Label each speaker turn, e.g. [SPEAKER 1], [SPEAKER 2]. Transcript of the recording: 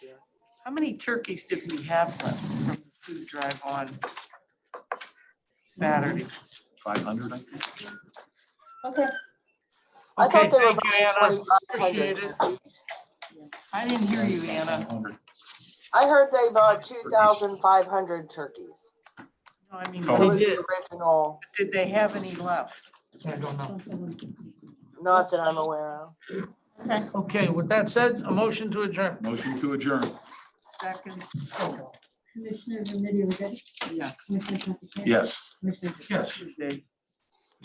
[SPEAKER 1] How many turkeys did we have left from the food drive on Saturday?
[SPEAKER 2] Five hundred, I
[SPEAKER 3] Okay. I
[SPEAKER 1] Okay,
[SPEAKER 3] thought there were
[SPEAKER 1] thank you,
[SPEAKER 3] about
[SPEAKER 1] Anna. Appreciate
[SPEAKER 3] 2,500.
[SPEAKER 1] it. I didn't hear you, Anna.
[SPEAKER 2] think.
[SPEAKER 3] I heard they bought two thousand five hundred turkeys.
[SPEAKER 1] No, I mean,
[SPEAKER 2] Oh.
[SPEAKER 3] That
[SPEAKER 2] They
[SPEAKER 3] was
[SPEAKER 1] did-
[SPEAKER 3] the original,
[SPEAKER 1] did they have any left?
[SPEAKER 4] I don't know.
[SPEAKER 3] not that I'm aware of.
[SPEAKER 4] Okay, with that said, a motion to adjourn.
[SPEAKER 2] Motion to adjourn.
[SPEAKER 1] Second, oh,
[SPEAKER 5] Commissioner Remedy Agati?
[SPEAKER 1] yes.
[SPEAKER 5] Commissioner Traficant?
[SPEAKER 2] Yes.
[SPEAKER 5] Commissioner Traficant?
[SPEAKER 4] Yes.
[SPEAKER 1] Tuesday.